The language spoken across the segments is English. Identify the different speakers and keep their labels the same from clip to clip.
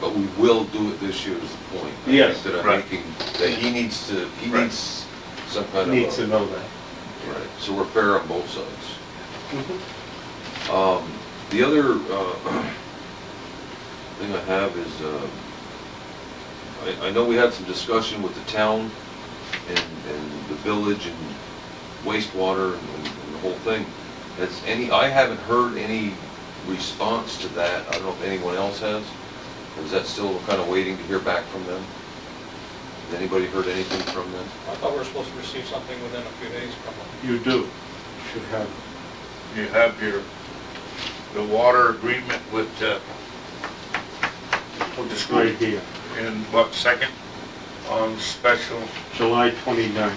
Speaker 1: But we will do it this year is the point. I think,
Speaker 2: Yes.
Speaker 1: That I'm
Speaker 3: Right.
Speaker 1: making, that he needs to, he
Speaker 3: Right.
Speaker 1: needs some kind of.
Speaker 2: Need to
Speaker 1: a-
Speaker 2: know that.
Speaker 1: Right, so repair on both sides.
Speaker 2: Mm-hmm.
Speaker 1: Um, the other, uh, thing I have is, uh, I, I know we had some discussion with the town and, and the village and wastewater and and the whole thing. Has any, I haven't heard any response to that. I don't know if anyone else has. Or is that still kind of waiting to hear back from them? Has anybody heard anything from them?
Speaker 4: I thought we were supposed to receive something within a few days from them.
Speaker 2: You do, should have.
Speaker 3: You have your, the water agreement with, uh,
Speaker 2: Well, Just right here,
Speaker 3: in what, second, on special,
Speaker 2: July 29th.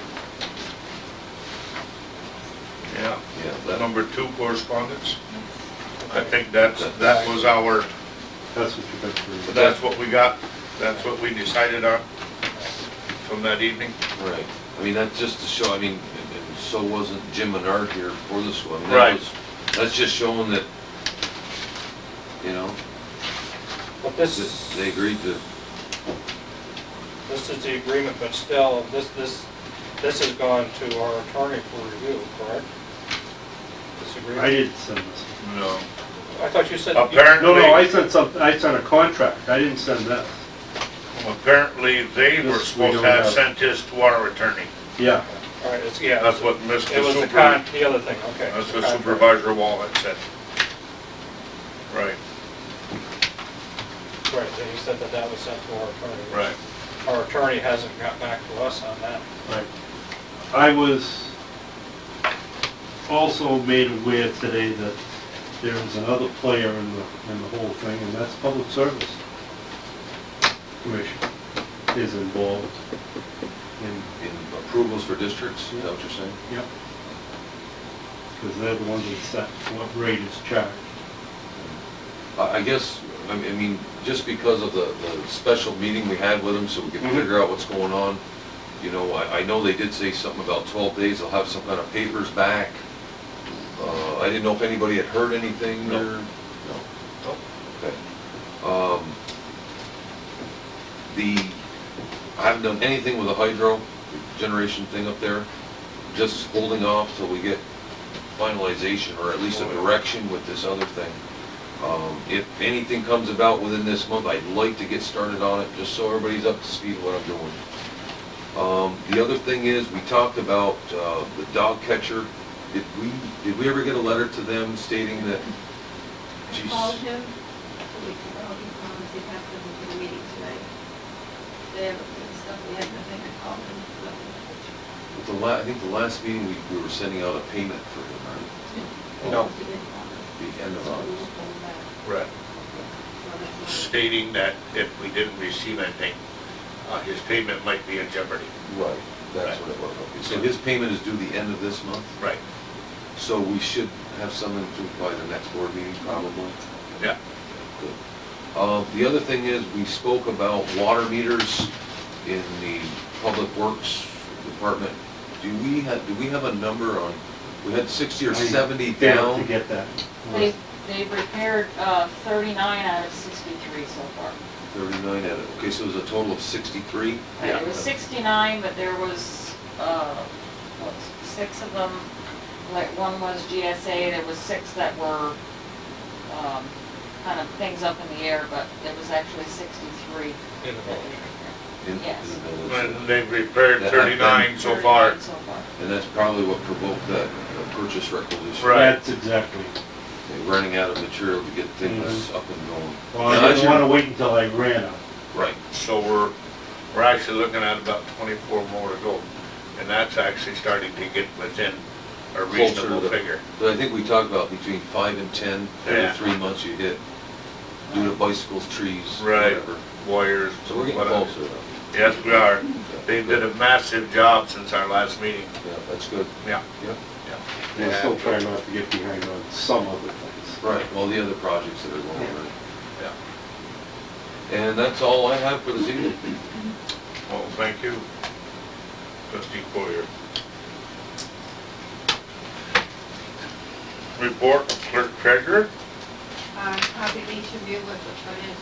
Speaker 3: yeah,
Speaker 1: Yeah, that,
Speaker 3: number two correspondence. I think that's, that was our,
Speaker 2: That's what you got to read.
Speaker 3: that's what we got, that's what we decided on from that evening.
Speaker 1: right. I mean, that's just to show, I mean, and and so wasn't Jim Menard here for this one. That
Speaker 3: Right.
Speaker 1: was- That's just showing that, you know,
Speaker 4: But this
Speaker 1: that
Speaker 4: is,
Speaker 1: they agreed to,
Speaker 4: this is the agreement, but still, this, this, this has gone to our attorney for review, correct? This
Speaker 2: I
Speaker 4: agreement?
Speaker 2: didn't send this.
Speaker 3: No.
Speaker 4: I thought you said. you-
Speaker 3: Apparently.
Speaker 2: No, no, I sent something, I sent a contract, I didn't send this.
Speaker 3: Apparently, they were
Speaker 2: This we
Speaker 3: supposed
Speaker 2: don't
Speaker 3: to have
Speaker 2: have.
Speaker 3: sent this to our attorney.
Speaker 2: Yeah,
Speaker 4: All right, it's, yeah.
Speaker 3: That's
Speaker 4: it's-
Speaker 3: what Mr.
Speaker 4: It was the
Speaker 3: Super-
Speaker 4: con, the other thing, okay.
Speaker 3: That's
Speaker 4: the
Speaker 3: what
Speaker 4: contract.
Speaker 3: Supervisor Wallet said. Right,
Speaker 4: Right, he said that that was sent to our attorney.
Speaker 3: right.
Speaker 4: Our attorney hasn't got back to us on that.
Speaker 2: right. I was also made aware today that there is another player in the, in the whole thing, and that's Public Service Commission is involved. in.
Speaker 1: in approvals for districts, is that what you're saying?
Speaker 2: Yep. Because they're the ones that set what rate is charged.
Speaker 1: I, I guess, I mean- I mean, just because of the, the special meeting we had with them, so we can
Speaker 3: Mm-hmm.
Speaker 2: Mhm.
Speaker 1: figure out what's going on. You know, I, I know they did say something about twelve days, they'll have some kind of papers back. Uh, I didn't know if anybody had heard anything
Speaker 3: No.
Speaker 1: or. No.
Speaker 3: Nope.
Speaker 1: Okay. Um, The, I haven't done anything with the hydro generation thing up there, just holding off till we get finalization or at least a direction with this other thing. Um, If anything comes about within this month, I'd like to get started on it, just so everybody's up to speed with what I'm doing. Um, The other thing is, we talked about uh, the dog catcher. Did we, did we ever get a letter to them stating that?
Speaker 5: I
Speaker 1: Jeez.
Speaker 5: called him a week ago, he promised he'd have them for the meeting tonight. They haven't been stuff, we had nothing, I called him, nothing.
Speaker 1: But The la, I think the last meeting, we, we were sending out a payment for him, right?
Speaker 2: No.
Speaker 5: He didn't want us.
Speaker 1: The end of
Speaker 5: So we
Speaker 1: August.
Speaker 5: won't hold back.
Speaker 3: Right.
Speaker 5: So that's not-
Speaker 3: Stating that if we didn't receive anything, uh, his payment might be in jeopardy.
Speaker 1: Right. That's what it was, okay. So his payment is due the end of this month,
Speaker 3: Right.
Speaker 1: so we should have something to by the next board meeting probably.
Speaker 3: Yeah.
Speaker 1: Good. Uh, the other thing is, we spoke about water meters in the Public Works Department. Do we have, do we have a number on, we had sixty or
Speaker 2: I
Speaker 1: seventy
Speaker 2: failed
Speaker 1: down?
Speaker 2: To get that.
Speaker 6: They've, they've repaired uh, 39 out of 63 so far.
Speaker 1: Thirty-nine at it, okay, so it was a total of sixty-three?
Speaker 6: It was 69, but there was, uh, what, six of them, like, one was GSA, there was six that were um, kind of things up in the air, but it was actually 63.
Speaker 4: In the village.
Speaker 6: that they repaired.
Speaker 1: in- in the
Speaker 6: Yes.
Speaker 1: village.
Speaker 3: And they've repaired
Speaker 1: That- that-
Speaker 3: thirty-nine so far.
Speaker 6: 39 So far.
Speaker 1: And that's probably what provoked that uh, purchase requisition.
Speaker 3: Right.
Speaker 2: That's exactly.
Speaker 1: They're Running out of material to get
Speaker 3: Mm-hmm.
Speaker 1: things up and going.
Speaker 2: Well, I didn't want to wait until I ran out.
Speaker 1: Right,
Speaker 3: So we're, we're actually looking at about twenty-four more to go. And that's actually starting to get within a
Speaker 1: Closer
Speaker 3: reasonable
Speaker 1: to-
Speaker 3: figure.
Speaker 1: but I think we talked about between five and 10, every
Speaker 3: Yeah.
Speaker 1: three months you hit, due to bicycles, trees,
Speaker 3: Right.
Speaker 1: whatever.
Speaker 3: Warriors.
Speaker 1: So we're getting
Speaker 3: whatever.
Speaker 1: closer. though.
Speaker 3: Yes, we are. They did a massive job since our last meeting.
Speaker 1: Yeah, that's good.
Speaker 3: Yeah.
Speaker 1: Yep.
Speaker 2: I'm
Speaker 3: Yeah.
Speaker 2: still trying not to get behind on some other things.
Speaker 1: Right, well, the other projects that are going on.
Speaker 3: Yeah.
Speaker 1: And that's all I have for this evening.
Speaker 3: Well, thank you, trustee Poyer. Report of clerk treasurer?
Speaker 5: Uh, Probably each of you with the financial